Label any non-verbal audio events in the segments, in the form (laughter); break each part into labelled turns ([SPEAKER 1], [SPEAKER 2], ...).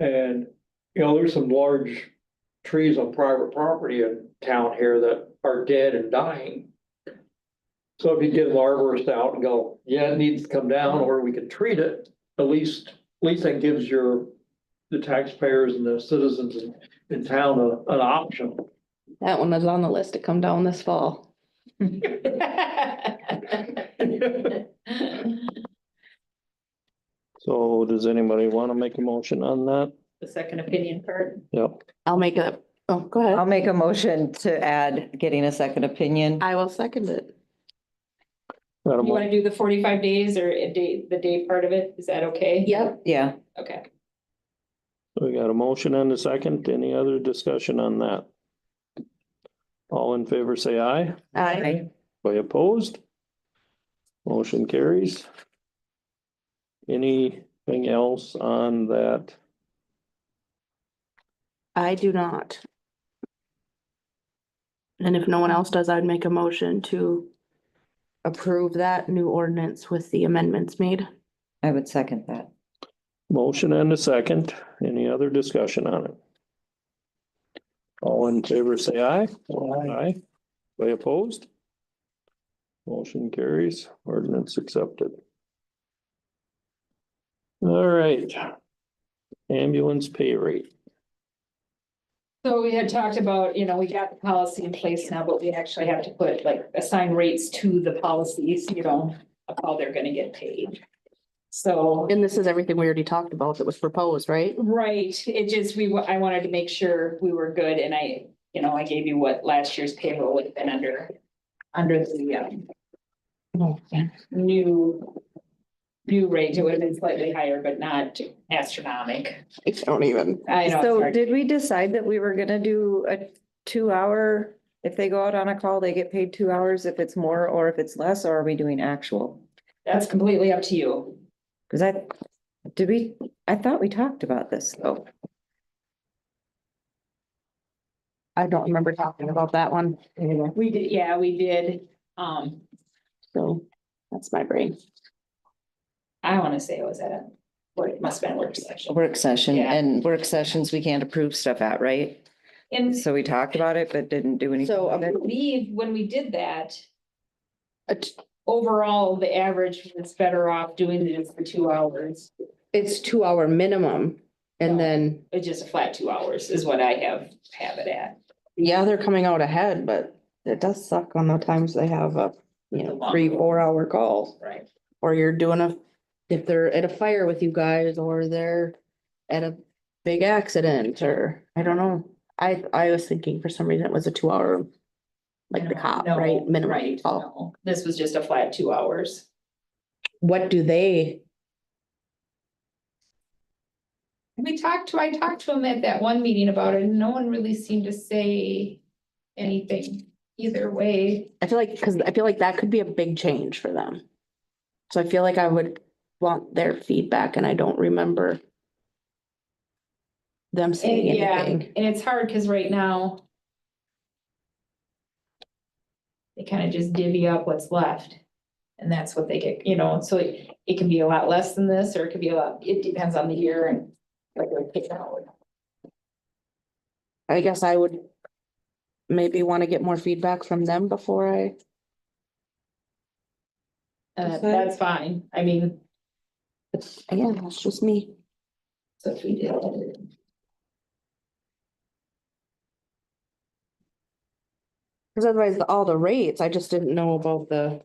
[SPEAKER 1] And, you know, there's some large trees on private property in town here that are dead and dying. So if you get an arborist out and go, yeah, it needs to come down, or we can treat it, at least, at least that gives your, the taxpayers and the citizens in, in town a- an option.
[SPEAKER 2] That one is on the list to come down this fall.
[SPEAKER 3] So does anybody want to make a motion on that?
[SPEAKER 4] The second opinion part.
[SPEAKER 3] Yep.
[SPEAKER 2] (laughs) I'll make it, oh, go
[SPEAKER 5] I'll
[SPEAKER 2] ahead.
[SPEAKER 5] make a motion to add getting a second opinion.
[SPEAKER 2] I will second it.
[SPEAKER 3] Got a
[SPEAKER 4] You
[SPEAKER 3] mo-
[SPEAKER 4] wanna do the forty-five days or a day, the day part of it? Is that okay?
[SPEAKER 2] Yep.
[SPEAKER 5] Yeah,
[SPEAKER 4] Okay.
[SPEAKER 3] We got a motion and a second. Any other discussion on that? All in favor, say aye.
[SPEAKER 2] I,
[SPEAKER 3] By opposed? Motion carries. Anything else on that?
[SPEAKER 2] I do not. And if no one else does, I'd make a motion to approve that new ordinance with the amendments made.
[SPEAKER 5] I would second that.
[SPEAKER 3] Motion and a second. Any other discussion on it? All in favor, say aye. Aye. By opposed? Motion carries, ordinance accepted. All right. Ambulance pay rate.
[SPEAKER 4] So we had talked about, you know, we got the policy in place now, but we actually have to put like assign rates to the policies, you know, of how they're gonna get paid. So.
[SPEAKER 2] And this is everything we already talked about that was proposed, right?
[SPEAKER 4] Right, it just, we, wa- I wanted to make sure we were good and I, you know, I gave you what last year's payroll would have been under. Under the, um, new. New rate, it would have been slightly higher, but not astronomic.
[SPEAKER 2] I don't even.
[SPEAKER 4] I know. it's
[SPEAKER 5] So
[SPEAKER 4] hard.
[SPEAKER 5] did we decide that we were gonna do a two hour? If they go out on a call, they get paid two hours if it's more or if it's less, or are we doing actual?
[SPEAKER 4] That's completely up to you.
[SPEAKER 5] Cause I, did we, I thought we talked about this though.
[SPEAKER 2] I don't remember talking about that one,
[SPEAKER 4] We did, yeah, we did. Um,
[SPEAKER 2] so that's my brain.
[SPEAKER 4] I want to say it was at a, or it must have been a work session.
[SPEAKER 5] Work session
[SPEAKER 4] Yeah.
[SPEAKER 5] and work sessions we can't approve stuff at, right?
[SPEAKER 4] And
[SPEAKER 5] So we talked about it, but didn't do anything.
[SPEAKER 2] So,
[SPEAKER 4] I
[SPEAKER 5] with it.
[SPEAKER 4] believe when we did that,
[SPEAKER 2] A t-
[SPEAKER 4] overall, the average was better off doing this for two hours.
[SPEAKER 2] It's two hour minimum and
[SPEAKER 4] No.
[SPEAKER 2] then,
[SPEAKER 4] It's just a flat two hours is what I have, have it at.
[SPEAKER 2] yeah, they're coming out ahead, but it does suck on the times they have a, you know, three, four hour calls.
[SPEAKER 4] Right.
[SPEAKER 2] or you're doing a, if they're at a fire with you guys, or they're at a big accident, or, I don't know. I, I was thinking for some reason it was a two hour, like the cop,
[SPEAKER 4] No,
[SPEAKER 2] right, minimum
[SPEAKER 4] right,
[SPEAKER 2] call.
[SPEAKER 4] no. This was just a flat two hours.
[SPEAKER 2] What do they,
[SPEAKER 4] We talked to, I talked to him at that one meeting about it, and no one really seemed to say anything either way.
[SPEAKER 2] I feel like, cause I feel like that could be a big change for them. So I feel like I would want their feedback and I don't remember them
[SPEAKER 4] And
[SPEAKER 2] saying
[SPEAKER 4] yeah,
[SPEAKER 2] anything.
[SPEAKER 4] and it's hard because right now they kind of just divvy up what's left. And that's what they get, you know, so it, it can be a lot less than this, or it could be a lot, it depends on the year and like we pick out.
[SPEAKER 2] I guess I would maybe wanna get more feedback from them before I.
[SPEAKER 4] And that-
[SPEAKER 2] Okay.
[SPEAKER 4] Uh, that's fine, I mean,
[SPEAKER 2] It's, again, that's just me.
[SPEAKER 4] so if we did.
[SPEAKER 2] Cause otherwise, the- all the rates, I just didn't know about the.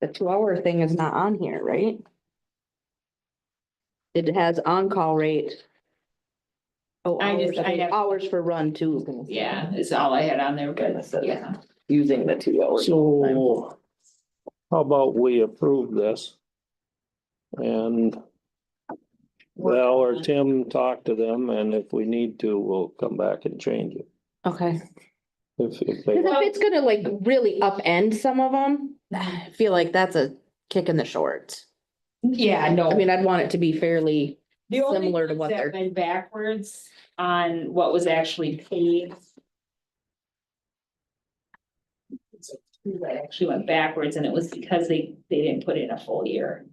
[SPEAKER 2] The two hour thing is not on here, right? It has on-call rate. Oh,
[SPEAKER 4] I
[SPEAKER 2] hours,
[SPEAKER 4] just- I have-
[SPEAKER 2] hours for run too.
[SPEAKER 4] Yeah, is all I had on there, but yeah,
[SPEAKER 2] Using the two hours.
[SPEAKER 3] So how about we approve this? And well, or Tim talk to them and if we need to, we'll come back and change it.
[SPEAKER 2] Okay,
[SPEAKER 3] If, if
[SPEAKER 2] cause
[SPEAKER 3] they,
[SPEAKER 2] if it's gonna like really upend some of them, (sighs) I feel like that's a kick in the shorts.
[SPEAKER 4] yeah, no.
[SPEAKER 2] I mean, I'd want it to be fairly,
[SPEAKER 4] The only
[SPEAKER 2] similar to
[SPEAKER 4] ones
[SPEAKER 2] what
[SPEAKER 4] that
[SPEAKER 2] they're-
[SPEAKER 4] Went backwards on what was actually paid. So, That actually went backwards and it was because they, they didn't put in a full year.